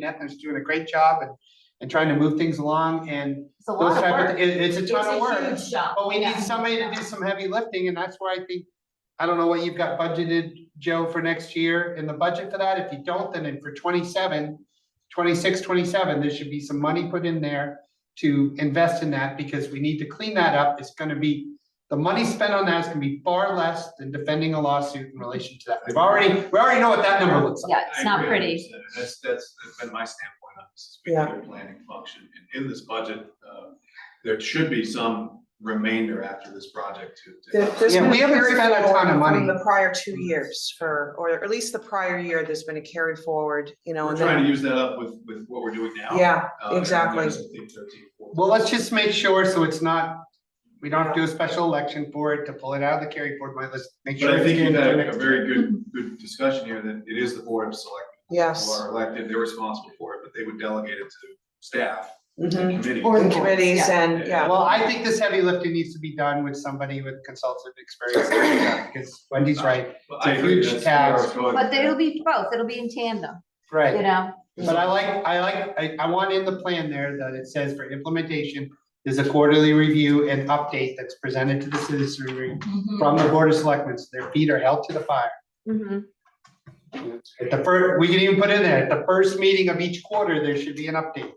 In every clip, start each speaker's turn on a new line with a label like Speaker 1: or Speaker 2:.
Speaker 1: Knapp is doing a great job and, and trying to move things along and
Speaker 2: It's a
Speaker 1: those
Speaker 2: lot of
Speaker 1: type of,
Speaker 2: work.
Speaker 1: it, it's a
Speaker 2: It's
Speaker 1: ton of work.
Speaker 2: a huge job.
Speaker 1: But we need
Speaker 2: Yeah.
Speaker 1: somebody to do some heavy lifting, and that's where I think, I don't know what you've got budgeted, Joe, for next year in the budget for that. If you don't, then in for 27, 26, 27, there should be some money put in there to invest in that, because we need to clean that up. It's gonna be, the money spent on that is gonna be far less than defending a lawsuit in relation to that. We've already, we already know what that number looks like.
Speaker 2: Yeah, it's
Speaker 3: I
Speaker 2: not
Speaker 3: agree
Speaker 2: pretty.
Speaker 3: 100%. That's, that's, that's been my standpoint on this, is
Speaker 4: Yeah.
Speaker 3: a planning function, and in this budget, uh, there should be some remainder after this project to.
Speaker 4: There-
Speaker 3: to-
Speaker 4: There's
Speaker 1: Yeah,
Speaker 4: been a
Speaker 1: we haven't
Speaker 4: carry
Speaker 1: spent a ton of
Speaker 4: forward
Speaker 1: money.
Speaker 4: From the prior two years for, or at least the prior year, there's been a carry forward, you know,
Speaker 3: We're
Speaker 4: and
Speaker 3: trying
Speaker 4: then,
Speaker 3: to use that up with, with what we're doing now.
Speaker 4: yeah,
Speaker 3: Uh, and
Speaker 4: exactly.
Speaker 3: there's, I think, 13, 14.
Speaker 1: Well, let's just make sure, so it's not, we don't have to do a special election for it to pull it out of the carry forward, but let's make sure.
Speaker 3: But I
Speaker 1: it's
Speaker 3: think
Speaker 1: in
Speaker 3: you've
Speaker 1: there
Speaker 3: had
Speaker 1: next
Speaker 3: a very good, good discussion here, that it is the board of selectmen who
Speaker 4: yes.
Speaker 3: are elected, they're responsible for it, but they would delegate it to staff
Speaker 4: Mhm.
Speaker 3: and committee.
Speaker 2: Or-
Speaker 4: And committees
Speaker 2: Yeah.
Speaker 4: and, yeah,
Speaker 1: Well, I think this heavy lifting needs to be done with somebody with consultative experience, to do that, because Wendy's right,
Speaker 3: But I
Speaker 1: It's a
Speaker 3: agree,
Speaker 1: huge
Speaker 3: that's where I was
Speaker 1: task.
Speaker 3: going.
Speaker 2: But it'll be both, it'll be in tandem, you
Speaker 1: right.
Speaker 2: know?
Speaker 1: But I like, I like, I, I want in the plan there that it says for implementation, there's a quarterly review and update that's presented to the citizenry
Speaker 5: Mm-hmm.
Speaker 1: from the board of selectmen, so their feet are held to the fire.
Speaker 2: Mhm.
Speaker 1: At the first, we can even put in there, at the first meeting of each quarter, there should be an update,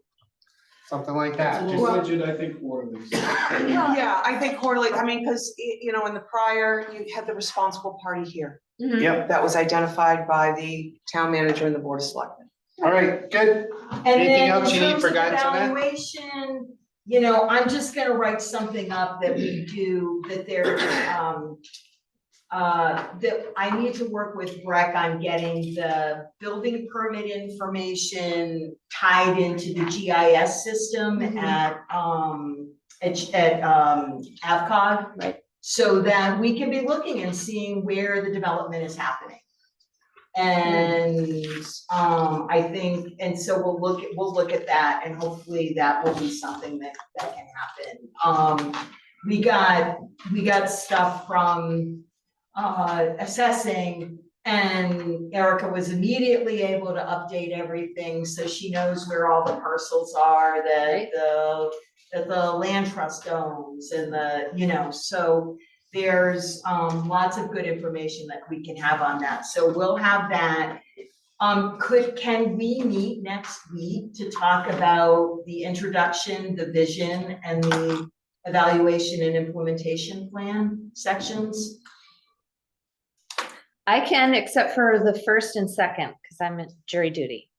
Speaker 1: something like that. just-
Speaker 3: Well, budget, I think, for these.
Speaker 4: yeah, I think quarterly, I mean, because, you know, in the prior, you had the responsible party here.
Speaker 2: Mhm.
Speaker 1: Yep.
Speaker 4: That was identified by the town manager and the board of selectmen.
Speaker 1: All right, good,
Speaker 5: And
Speaker 1: Anything
Speaker 5: then
Speaker 1: else
Speaker 5: in
Speaker 1: you need
Speaker 5: terms
Speaker 1: for
Speaker 5: of
Speaker 1: guidance on that?
Speaker 5: evaluation, you know, I'm just gonna write something up that we do, that there, um, uh, that I need to work with Breck on getting the building permit information tied into the GIS system
Speaker 1: Mm-hmm.
Speaker 2: Mhm.
Speaker 5: at, um, at, at, um, AvCog.
Speaker 2: Right.
Speaker 5: So that we can be looking and seeing where the development is happening.
Speaker 1: Mm-hmm.
Speaker 5: And um I think, and so we'll look, at we'll look at that and hopefully that will be something that that can happen. Um we got, we got stuff from uh assessing and Erica was immediately able to update everything, so she knows where all the parcels are, that
Speaker 2: Right.
Speaker 5: the that the land trust owns and the, you know, so there's um lots of good information that we can have on that, so we'll have that. Um could, can we meet next week to talk about the introduction, the vision and the evaluation and implementation plan sections?
Speaker 2: I can, except for the first and second, because I'm at jury duty.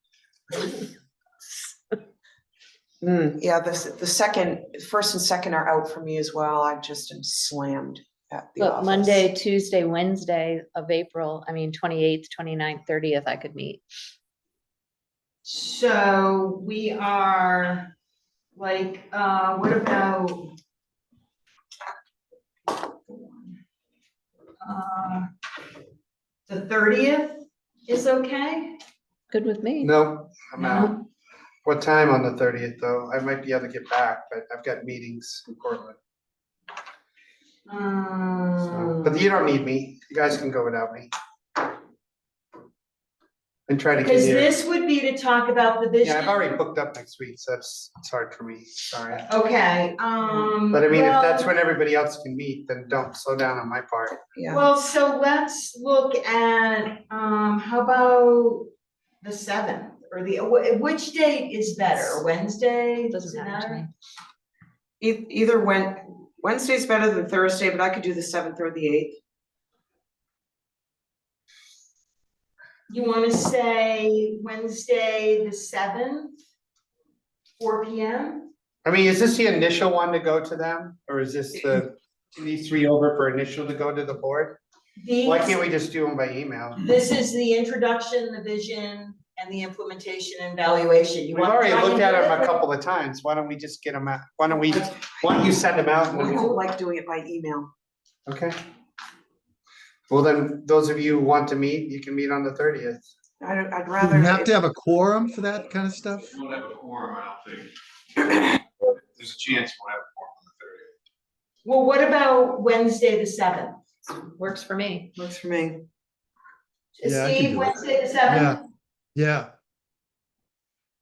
Speaker 4: Mm, yeah, the, s- the second, first and second are out for me as well. I just am slammed at the
Speaker 2: But
Speaker 4: office.
Speaker 2: Monday, Tuesday, Wednesday of April, I mean, twenty-eighth, 29th, thirtieth, I could meet.
Speaker 5: So we are like, uh what about? Uh, The thirtieth is okay?
Speaker 2: Good with me.
Speaker 1: no, I'm
Speaker 5: No?
Speaker 1: out. What time on the thirtieth, though? I might be able to get back, but I've got meetings in Portland, so,
Speaker 5: Um,
Speaker 1: but you don't need me, you guys can go without me. And try to get
Speaker 5: Because
Speaker 1: here,
Speaker 5: this would be to talk about the vision.
Speaker 1: yeah, I've already booked up next week, so that's, it's hard for me, sorry.
Speaker 5: Okay, um.
Speaker 1: But I mean, if
Speaker 5: Mm, well-
Speaker 1: that's when everybody else can meet, then don't slow down on my part.
Speaker 4: Yeah,
Speaker 5: Well, so let's look at, um, how about the seventh or the, wh- which date is better? Wednesday?
Speaker 2: Doesn't matter to me.
Speaker 4: E- either Wed- Wednesday's better than Thursday, but I could do the seventh or the eighth.
Speaker 5: You wanna say Wednesday, the seventh? Four P M?
Speaker 1: I mean, is this the initial one to go to them, or is this the, these three over for initial to go to the board? Why can't we just do them by email?
Speaker 5: This is the introduction, the vision, and the implementation and valuation. You
Speaker 1: We've
Speaker 5: want.
Speaker 1: already looked at them a couple of times, why don't we just get them out, why don't we, why don't you send them out? and
Speaker 4: I
Speaker 1: then-
Speaker 4: don't like doing it by email.
Speaker 1: Okay. Well, then, those of you who want to meet, you can meet on the thirtieth.
Speaker 4: I don't, I'd
Speaker 6: Do
Speaker 4: rather.
Speaker 6: You have to have a quorum for that kind of stuff?
Speaker 3: We won't have a quorum, I don't think. There's a chance we'll have a quorum on the thirtieth.
Speaker 5: Well, what about Wednesday, the seventh?
Speaker 2: Works for me.
Speaker 4: Works for me.
Speaker 6: Yeah, I can
Speaker 5: Steve,
Speaker 6: do it.
Speaker 5: Wednesday the seventh?
Speaker 6: Yeah,